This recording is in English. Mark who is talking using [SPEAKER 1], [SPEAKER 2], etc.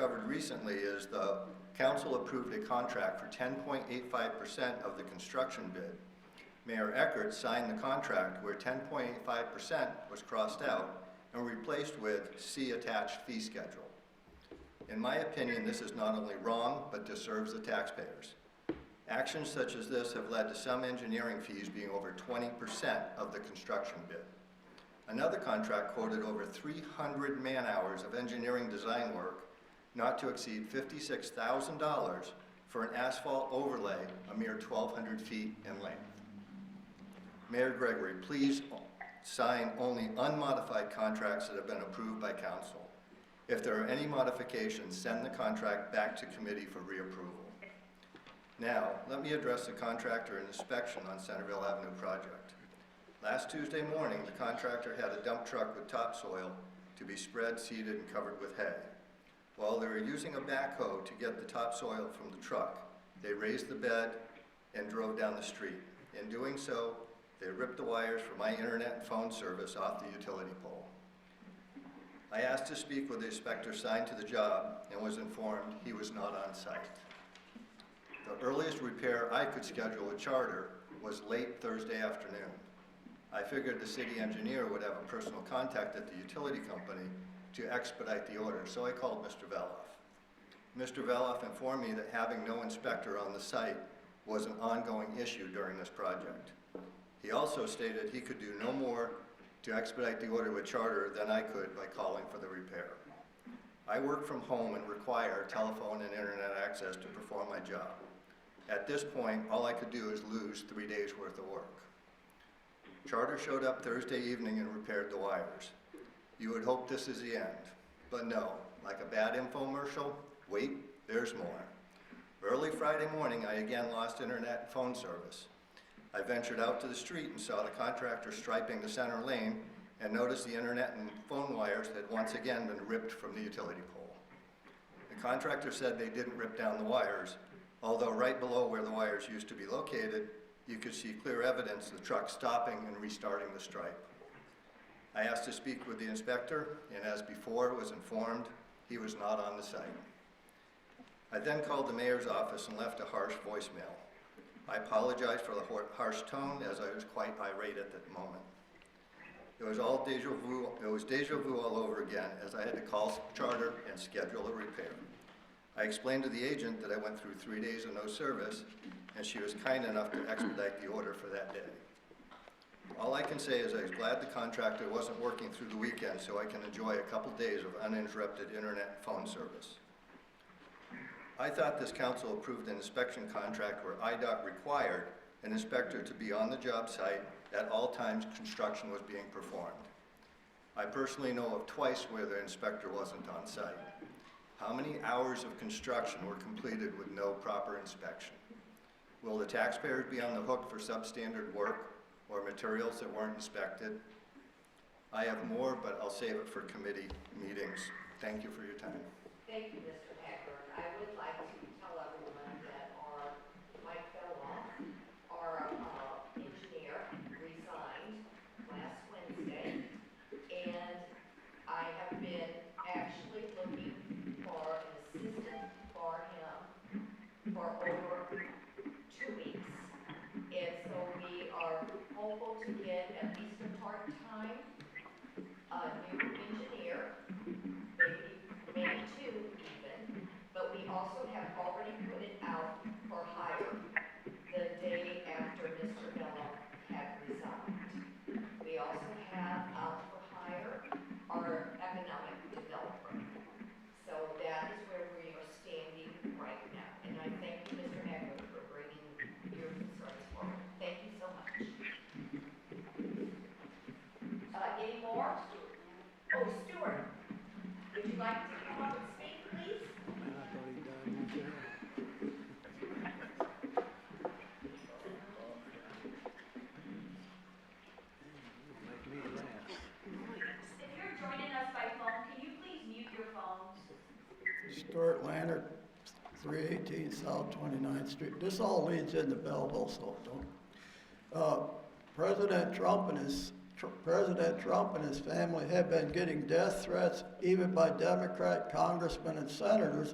[SPEAKER 1] discovered recently is the council approved a contract for ten point eight five percent of the construction bid. Mayor Eckert signed the contract where ten point eight five percent was crossed out and replaced with C attached fee schedule. In my opinion, this is not only wrong, but deserves the taxpayers. Actions such as this have led to some engineering fees being over twenty percent of the construction bid. Another contract quoted over three hundred man-hours of engineering design work not to exceed fifty-six thousand dollars for an asphalt overlay a mere twelve hundred feet in length. Mayor Gregory, please sign only unmodified contracts that have been approved by council. If there are any modifications, send the contract back to committee for reapproval. Now, let me address the contractor and inspection on Centerville Avenue project. Last Tuesday morning, the contractor had a dump truck with topsoil to be spread, seeded, and covered with hay. While they were using a backhoe to get the topsoil from the truck, they raised the bed and drove down the street. In doing so, they ripped the wires for my internet and phone service off the utility pole. I asked to speak with the inspector assigned to the job and was informed he was not on site. The earliest repair I could schedule a charter was late Thursday afternoon. I figured the city engineer would have a personal contact at the utility company to expedite the order, so I called Mr. Veloff. Mr. Veloff informed me that having no inspector on the site was an ongoing issue during this project. He also stated he could do no more to expedite the order with charter than I could by calling for the repair. I work from home and require telephone and internet access to perform my job. At this point, all I could do is lose three days' worth of work. Charter showed up Thursday evening and repaired the wires. You would hope this is the end, but no, like a bad infomercial, wait, there's more. Early Friday morning, I again lost internet and phone service. I ventured out to the street and saw the contractor striping the center lane and noticed the internet and phone wires had once again been ripped from the utility pole. The contractor said they didn't rip down the wires, although right below where the wires used to be located, you could see clear evidence of the truck stopping and restarting the stripe. I asked to speak with the inspector, and as before, was informed he was not on the site. I then called the mayor's office and left a harsh voicemail. I apologized for the hor- harsh tone, as I was quite irate at that moment. It was all deja vu, it was deja vu all over again, as I had to call charter and schedule a repair. I explained to the agent that I went through three days of no service, and she was kind enough to expedite the order for that day. All I can say is I was glad the contractor wasn't working through the weekend, so I can enjoy a couple days of uninterrupted internet and phone service. I thought this council approved an inspection contract where IDOT required an inspector to be on the job site at all times construction was being performed. I personally know of twice where the inspector wasn't on site. How many hours of construction were completed with no proper inspection? Will the taxpayers be on the hook for substandard work or materials that weren't inspected? I have more, but I'll save it for committee meetings. Thank you for your time.
[SPEAKER 2] Thank you, Mr. Eckert. I would like to tell everyone that our Mike Beloff, our uh, engineer, resigned last Wednesday. And I have been actually looking for an assistant for him for over two weeks. And so we are hopeful to get at least a part-time, uh, new engineer maybe, maybe two even, but we also have already put it out for hire the day after Mr. Mello had resigned. We also have out for hire our economic developer. So that is where we are standing right now, and I thank you, Mr. Eckert, for bringing your concerns forward. Thank you so much. Uh, any more? Oh, Stuart, would you like to come up and speak, please?
[SPEAKER 3] And I thought he died in jail. Make me laugh.
[SPEAKER 4] If you're joining us by phone, can you please mute your phones?
[SPEAKER 5] Stuart Lander, three eighteen South 29th Street. This all leads into Belleville, so don't. Uh, President Trump and his Tr- President Trump and his family have been getting death threats even by Democrat congressmen and senators